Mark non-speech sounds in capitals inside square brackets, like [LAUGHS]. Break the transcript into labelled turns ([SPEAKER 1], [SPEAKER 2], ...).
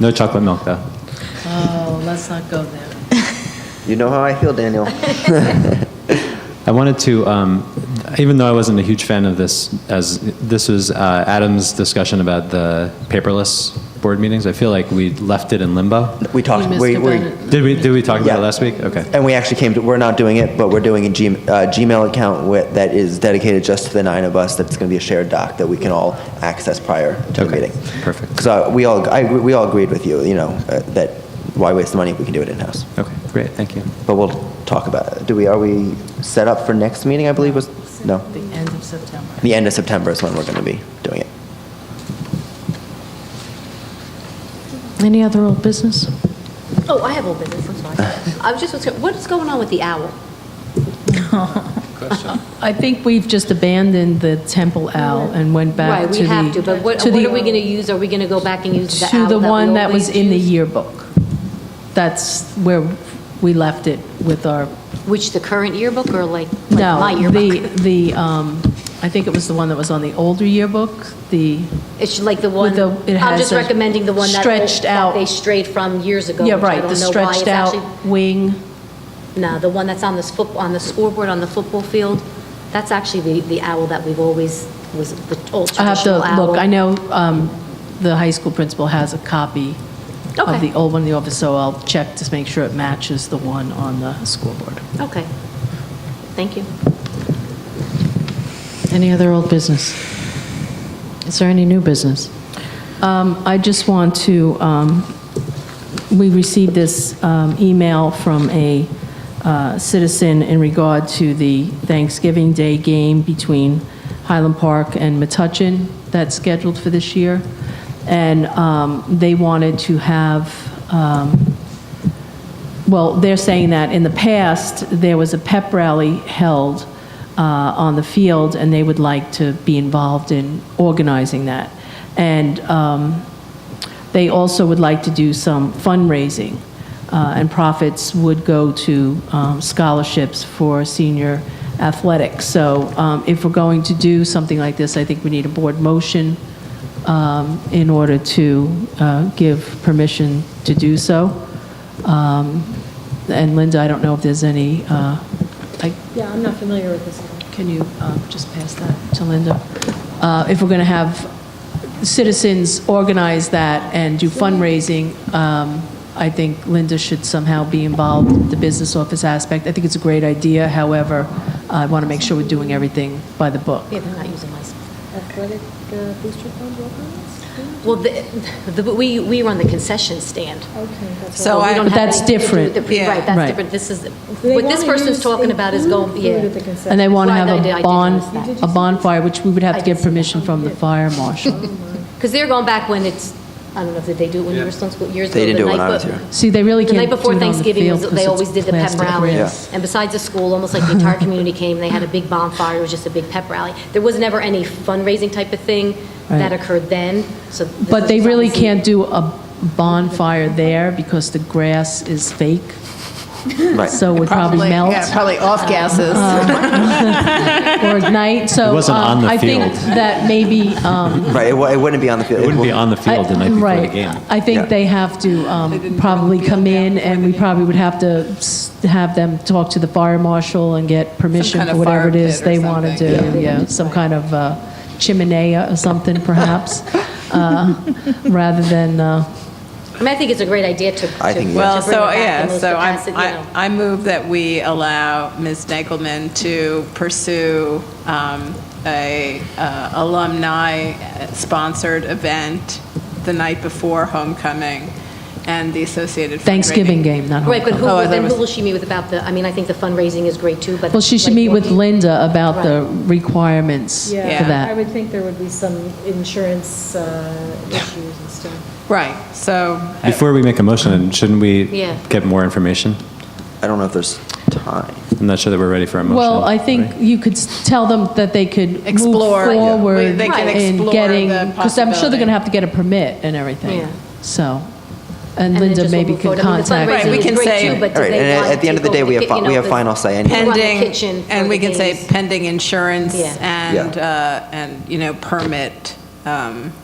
[SPEAKER 1] No chocolate milk, though.
[SPEAKER 2] Oh, let's not go there.
[SPEAKER 3] You know how I
[SPEAKER 2] [LAUGHS]
[SPEAKER 3] feel, Daniel.
[SPEAKER 1] I wanted to, um, even though I wasn't a huge fan of this, as this was uh, Adam's discussion about the paperless board meetings, I feel like we left it in limbo.
[SPEAKER 3] We
[SPEAKER 2] You
[SPEAKER 3] talked.
[SPEAKER 2] missed
[SPEAKER 3] We,
[SPEAKER 2] about
[SPEAKER 3] we,
[SPEAKER 2] it.
[SPEAKER 1] Did we, did we talk about
[SPEAKER 3] Yeah.
[SPEAKER 1] it last week? Okay.
[SPEAKER 3] and we actually came to. We're not doing it, but we're doing a G, uh, Gmail account with, that is dedicated just to the nine of us. That's going to be a shared doc that we can all access prior to the
[SPEAKER 1] Okay,
[SPEAKER 3] meeting.
[SPEAKER 1] perfect.
[SPEAKER 3] Because uh, we all I, we all agreed with you. You know uh, that why waste the money if we can do it in house.
[SPEAKER 1] Okay, great, thank you.
[SPEAKER 3] But we'll talk about. it. Do we? Are we set up for next meeting? I believe was no.
[SPEAKER 2] The end of September.
[SPEAKER 3] The end of September is when we're going to be doing it.
[SPEAKER 2] Any other old business?
[SPEAKER 4] Oh, I have old business, I'm sorry. I was just, wondering, what's going on with the owl?
[SPEAKER 2] I think we've just abandoned the temple owl and went back to
[SPEAKER 4] Right,
[SPEAKER 2] the...
[SPEAKER 4] we have to, but what
[SPEAKER 2] to
[SPEAKER 4] what
[SPEAKER 2] the-
[SPEAKER 4] are we going to use? Are we going to go back and use the
[SPEAKER 2] To
[SPEAKER 4] owl that
[SPEAKER 2] the
[SPEAKER 4] we
[SPEAKER 2] one that was
[SPEAKER 4] always
[SPEAKER 2] in the
[SPEAKER 4] use?
[SPEAKER 2] yearbook. That's where we left it with our,
[SPEAKER 4] Which, the current yearbook or like like my
[SPEAKER 2] no, the,
[SPEAKER 4] yearbook?
[SPEAKER 2] the, um, I think it was the one that was on the older yearbook, the,
[SPEAKER 4] It's like the one,
[SPEAKER 2] with the- it
[SPEAKER 4] I'm
[SPEAKER 2] has
[SPEAKER 4] just
[SPEAKER 2] a
[SPEAKER 4] recommending the one that
[SPEAKER 2] stretched
[SPEAKER 4] that
[SPEAKER 2] out-
[SPEAKER 4] they strayed from years ago.
[SPEAKER 2] yeah,
[SPEAKER 4] which I
[SPEAKER 2] right, the
[SPEAKER 4] don't know why it's
[SPEAKER 2] stretched out
[SPEAKER 4] actually-
[SPEAKER 2] wing.
[SPEAKER 4] No, the one that's on this foot, on the scoreboard on the football field, that's actually the the owl that we've always, was the old
[SPEAKER 2] I have to
[SPEAKER 4] traditional owl.
[SPEAKER 2] look, I know um, the high school principal has a copy of
[SPEAKER 4] Okay.
[SPEAKER 2] the old one in the office, so I'll check to make sure it matches the one on the school board.
[SPEAKER 4] Okay, thank you.
[SPEAKER 5] Any other old business? Is there any new business?
[SPEAKER 2] Um, I just want to, um, we received this um, email from a uh, citizen in regard to the Thanksgiving Day game between Highland Park and Metuchen that's scheduled for this year. And um, they wanted to have, um, well, they're saying that in the past, there was a pep rally held uh, on the field, and they would like to be involved in organizing that. And um, they also would like to do some fundraising, uh, and profits would go to um, scholarships for senior athletics. So um, if we're going to do something like this, I think we need a board motion um, in order to uh, give permission to do so. Um, And Linda, I don't know if there's any, uh, I
[SPEAKER 5] Yeah, I'm not familiar with this.
[SPEAKER 2] can you um, just pass that to Linda? Uh, If we're going to have citizens organize that and do fundraising, um, I think Linda should somehow be involved with the business office aspect. I think it's a great idea, however, I want to make sure we're doing everything by the book.
[SPEAKER 4] Yeah, they're not using my
[SPEAKER 5] Athletic uh, booster club welcome?
[SPEAKER 4] Well, the, the- we, we were on the concession stand.
[SPEAKER 5] Oh, Okay. that's
[SPEAKER 6] So
[SPEAKER 4] We
[SPEAKER 6] I-
[SPEAKER 4] don't
[SPEAKER 2] But
[SPEAKER 4] have
[SPEAKER 2] that's
[SPEAKER 4] anything to do with
[SPEAKER 2] different.
[SPEAKER 4] the pre-
[SPEAKER 6] Yeah.
[SPEAKER 4] Right, that's
[SPEAKER 2] Right.
[SPEAKER 4] different. This is,
[SPEAKER 5] They
[SPEAKER 4] what this
[SPEAKER 5] wanna
[SPEAKER 4] person's
[SPEAKER 5] use Mm-hmm.
[SPEAKER 4] talking about is going,
[SPEAKER 5] include food
[SPEAKER 4] yeah.
[SPEAKER 5] at the concession.
[SPEAKER 2] And they want to
[SPEAKER 4] Right,
[SPEAKER 2] have
[SPEAKER 4] I did-
[SPEAKER 2] a
[SPEAKER 4] I did
[SPEAKER 2] bond,
[SPEAKER 4] notice that.
[SPEAKER 2] a bonfire, which we would have
[SPEAKER 4] I
[SPEAKER 2] to get
[SPEAKER 4] did see
[SPEAKER 2] permission from the fire marshal.
[SPEAKER 4] Because they're going back when it's, I don't know if they do it when you were still in school, years ago.
[SPEAKER 3] They didn't do
[SPEAKER 4] the
[SPEAKER 3] it when
[SPEAKER 4] night
[SPEAKER 3] I was
[SPEAKER 4] be-
[SPEAKER 3] here.
[SPEAKER 2] See, they really
[SPEAKER 4] The
[SPEAKER 2] can't
[SPEAKER 4] night
[SPEAKER 2] do it
[SPEAKER 4] before
[SPEAKER 2] on the
[SPEAKER 4] Thanksgiving,
[SPEAKER 2] field
[SPEAKER 4] was-
[SPEAKER 2] 'cause
[SPEAKER 4] they always
[SPEAKER 2] it's
[SPEAKER 4] did the pep
[SPEAKER 2] plastic
[SPEAKER 4] rally.
[SPEAKER 2] rings.
[SPEAKER 4] And besides the school, almost like the
[SPEAKER 2] [LAUGHS]
[SPEAKER 4] entire community came, they had a big bonfire, it was just a big pep rally. There was never any fundraising type of thing that
[SPEAKER 2] Right.
[SPEAKER 4] occurred then, so. this
[SPEAKER 2] But
[SPEAKER 4] is
[SPEAKER 2] they
[SPEAKER 4] just
[SPEAKER 2] really
[SPEAKER 4] something-
[SPEAKER 2] can't do a bonfire there because the grass is fake,
[SPEAKER 3] Right.
[SPEAKER 2] so it would probably melt
[SPEAKER 6] Yeah, probably off gases.
[SPEAKER 2] or at night. So
[SPEAKER 1] It wasn't
[SPEAKER 2] um,
[SPEAKER 1] on the
[SPEAKER 2] I think
[SPEAKER 1] field.
[SPEAKER 2] that maybe, um,
[SPEAKER 3] Right. It, wa- it wouldn't be on the field.
[SPEAKER 1] It wouldn't be on the
[SPEAKER 2] I-
[SPEAKER 1] field the night before the
[SPEAKER 2] right,
[SPEAKER 1] game.
[SPEAKER 2] I
[SPEAKER 3] Yeah.
[SPEAKER 2] think they have to um, probably come in and we probably would have to s- have them talk to the fire marshal and get permission
[SPEAKER 6] kind
[SPEAKER 2] for
[SPEAKER 6] of
[SPEAKER 2] whatever
[SPEAKER 6] fire
[SPEAKER 2] it is
[SPEAKER 6] pit or
[SPEAKER 2] they want to
[SPEAKER 6] something,
[SPEAKER 2] do. Yeah, some kind of uh, chimney or something perhaps, uh, rather than, uh,
[SPEAKER 4] I mean, I think it's a great idea to.
[SPEAKER 3] I
[SPEAKER 4] to-
[SPEAKER 3] think-
[SPEAKER 4] to
[SPEAKER 6] Well,
[SPEAKER 4] bring it
[SPEAKER 6] so,
[SPEAKER 4] back in
[SPEAKER 6] yeah,
[SPEAKER 4] most
[SPEAKER 6] so I'm-
[SPEAKER 4] capacity, you know.
[SPEAKER 6] I, I move that we allow Ms. Nagelman to pursue um, a uh, alumni-sponsored event the night before homecoming and the associated fundraising.
[SPEAKER 2] Thanksgiving game, not
[SPEAKER 4] Right, but who,
[SPEAKER 6] Oh, I
[SPEAKER 4] will-
[SPEAKER 6] thought
[SPEAKER 4] then
[SPEAKER 6] it
[SPEAKER 4] who
[SPEAKER 6] was-
[SPEAKER 4] will she meet with about the, I mean, I think the fundraising is great too, but.
[SPEAKER 2] Well, she should
[SPEAKER 4] like,
[SPEAKER 2] meet with
[SPEAKER 4] what-
[SPEAKER 2] Linda about the requirements for
[SPEAKER 6] Yeah.
[SPEAKER 5] I
[SPEAKER 2] that.
[SPEAKER 5] would think there would be some insurance uh, issues and stuff.
[SPEAKER 6] Right, so,
[SPEAKER 1] Before we make a motion, shouldn't we
[SPEAKER 4] Yeah.
[SPEAKER 1] get more information?
[SPEAKER 3] I don't know if there's time.
[SPEAKER 1] I'm not sure that we're ready for a motion.
[SPEAKER 2] Well, I think
[SPEAKER 1] right?
[SPEAKER 2] you could s- tell them that they could move
[SPEAKER 6] Explore, yeah.
[SPEAKER 2] forward
[SPEAKER 6] Right. They can
[SPEAKER 2] in
[SPEAKER 6] explore
[SPEAKER 2] getting,
[SPEAKER 6] the
[SPEAKER 2] because I'm sure they're going
[SPEAKER 6] possibility.
[SPEAKER 2] to have to get a permit and
[SPEAKER 4] Yeah.
[SPEAKER 2] everything, so. And
[SPEAKER 4] then
[SPEAKER 2] Linda
[SPEAKER 4] just we'll
[SPEAKER 2] maybe
[SPEAKER 4] move
[SPEAKER 2] could
[SPEAKER 4] forward. I mean, the
[SPEAKER 2] contact.
[SPEAKER 4] fundraising
[SPEAKER 6] Right, we
[SPEAKER 4] is
[SPEAKER 6] can
[SPEAKER 4] great,
[SPEAKER 6] say-
[SPEAKER 4] too, but do
[SPEAKER 3] All right,
[SPEAKER 4] they
[SPEAKER 3] and
[SPEAKER 4] want
[SPEAKER 3] at the end of the day,
[SPEAKER 4] people
[SPEAKER 3] we
[SPEAKER 4] to
[SPEAKER 3] have
[SPEAKER 4] get,
[SPEAKER 3] fi-
[SPEAKER 4] you
[SPEAKER 3] we
[SPEAKER 4] know,
[SPEAKER 3] have final say
[SPEAKER 4] the-
[SPEAKER 3] anyway.
[SPEAKER 4] run the
[SPEAKER 6] pending,
[SPEAKER 4] kitchen for
[SPEAKER 6] and we
[SPEAKER 4] the
[SPEAKER 6] can say
[SPEAKER 4] games.
[SPEAKER 6] pending insurance
[SPEAKER 4] Yeah.
[SPEAKER 6] and,
[SPEAKER 3] Yeah.
[SPEAKER 6] uh, and, you know, permit um,